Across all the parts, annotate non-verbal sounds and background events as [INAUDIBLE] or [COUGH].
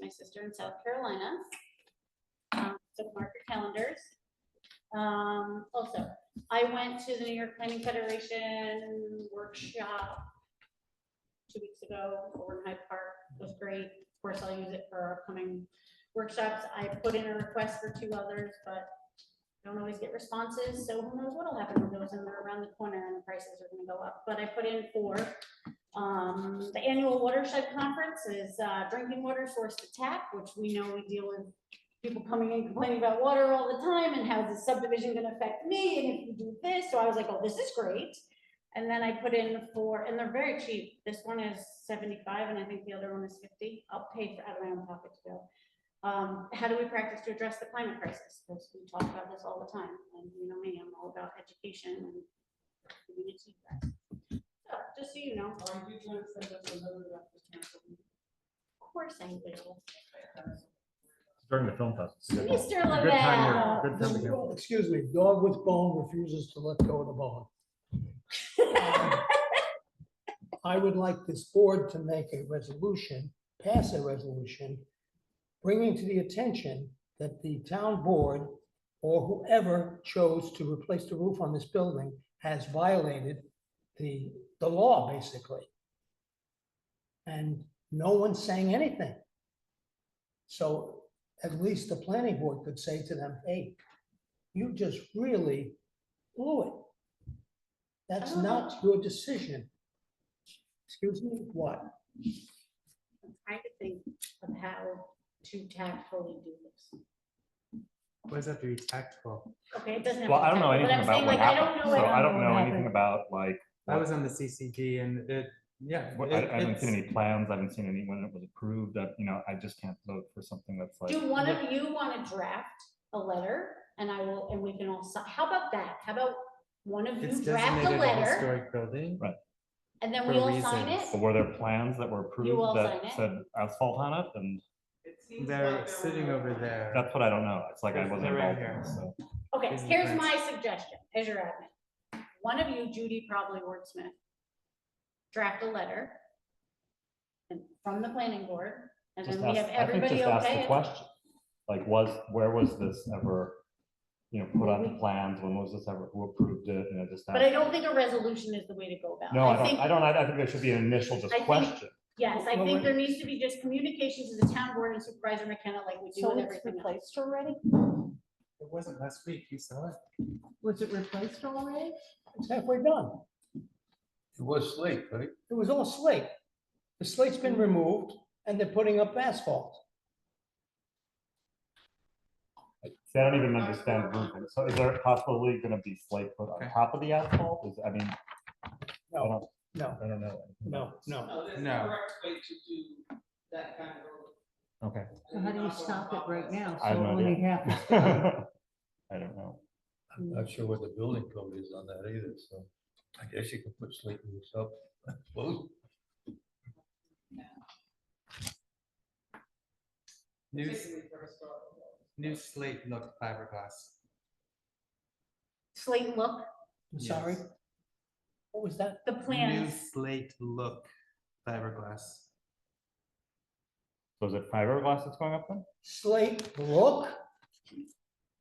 my sister in South Carolina. Um, So mark your calendars. Um, also, I went to the New York Planning Federation workshop two weeks ago over in Hyde Park. It was great. Of course, I'll use it for our upcoming workshops. I put in a request for two others, but don't always get responses, so who knows what'll happen with those, and they're around the corner and the prices are gonna go up. But I put in four. Um, the annual watershed conference is, uh, drinking water source to tap, which we know we deal with people coming in complaining about water all the time, and how's the subdivision gonna affect me, and if you do this, so I was like, oh, this is great. And then I put in four, and they're very cheap, this one is seventy-five, and I think the other one is fifty, I'll pay for, out of my own pocket to go. Um, how do we practice to address the climate crisis? Because we talk about this all the time, and you know me, I'm all about education and community. guys. So, just so you know, of Are you trying to send us a letter about the council? course I will. During the film festival. Mr. Good time Lavelle. here, good time here. Excuse me, dog with bone refuses to let go of the bone. I would like this board to make a resolution, pass a resolution, bringing to the attention that the town board or whoever chose to replace the roof on this building has violated the, the law, basically. And no one's saying anything. So at least the planning board could say to them, hey, you just really blew it. That's Oh. not your decision. Excuse me, what? I'm Trying to think of how to tactfully do this. What does that do? Tactful. Okay, it doesn't. have Well, to be I don't know tactful, but I'm saying, anything about what like, I don't happened, know, so like, I don't what know happened. anything about like. I what- was on the CCD and it, yeah. what- I it- I haven't seen it's- any plans, I haven't seen any when it was approved, that, you know, I just can't vote for something that's like. Do one of you want to draft a letter and I will, and we can all, si- how about that? How about one of It's you draft a designated a letter historic building. and then for we all sign it? reasons. But Were there plans that were all approved sign it? that said asphalt on it? And It seems like They're there sitting were- over there. that's what I don't know. It's like I They're- wasn't they're right involved in here. this, so. Okay, Is the here's prince. my suggestion, as your admin. One of you, Judy, probably wordsmith, draft a letter and- from the planning board, and Just then we have ask, I think everybody just ask okay. the it. question. Like, was, where was this ever, you know, put on the plans? When was this ever, who approved it? You know, just. But ask- I don't think a resolution is the way to go about. it. No, I don't, think- I don't, I I think there should be an initial just I think- question. Yes, I Well, think wait. there needs to be just communication to the town board and supervisor McKenna like we do So with it's everything else. replaced already? It wasn't last week. You saw it. Was it replaced already? It's halfway done. It was slate, right? It was all slate. The slate's Hmm. been removed and they're putting up asphalt. See, I don't even understand roofing. So is there possibly gonna be slate put on Okay. top of the asphalt? Is, I mean, I No, don't, no, I don't know. no, no. Oh, No, that's the No. correct way to do that kind of. road. Okay. [LAUGHS] [LAUGHS] So How do you stop it right now? I have So no when it idea. happens- I don't know. I'm not sure what the building code is on that either, so I guess you could put slate roofs up. I suppose. New, s- Particularly for historical buildings. new slate looked fiberglass. Slate look, I'm sorry. Yes. What was that? the New plans, slate look fiberglass. So is it fiberglass that's going up then? Slate, look, go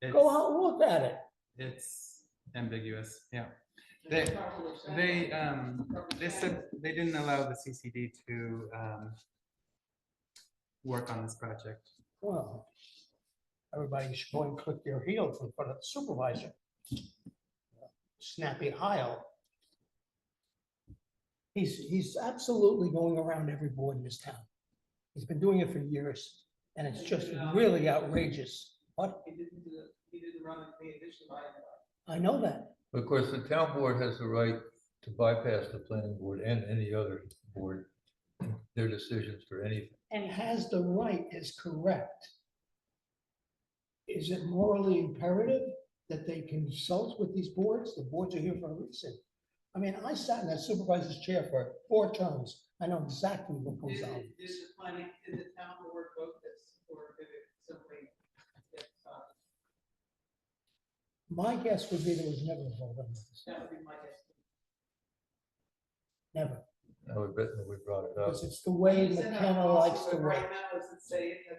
It's, out, and look at it. it's ambiguous. Yeah. It's They- probably shiny. They, um, they said they didn't allow the CCD to, um, work on this project. Well, everybody should go and click their heels in front of the supervisor. Snappy Heil. He's, he's absolutely going around every board in this town. He's been doing it for years, and it's just really outrageous. What? He didn't do, the- he didn't run the addition by. I know that. Of course, the town board has the right to bypass the planning board and any other board, their decisions for anything. and Has the right is correct. Is it morally imperative that they consult with these boards? The boards are here for a reason. I mean, I sat in that supervisor's chair for four terms. I know exactly what Did, goes on. it- did the planning, did the town board vote this or did it simply get, uh, My guess would be there was never a vote on this, that would be my guess. never, I would bet that we brought it up. because it's the way Isn't that McKenna likes possible? to write. Right now, does it say in the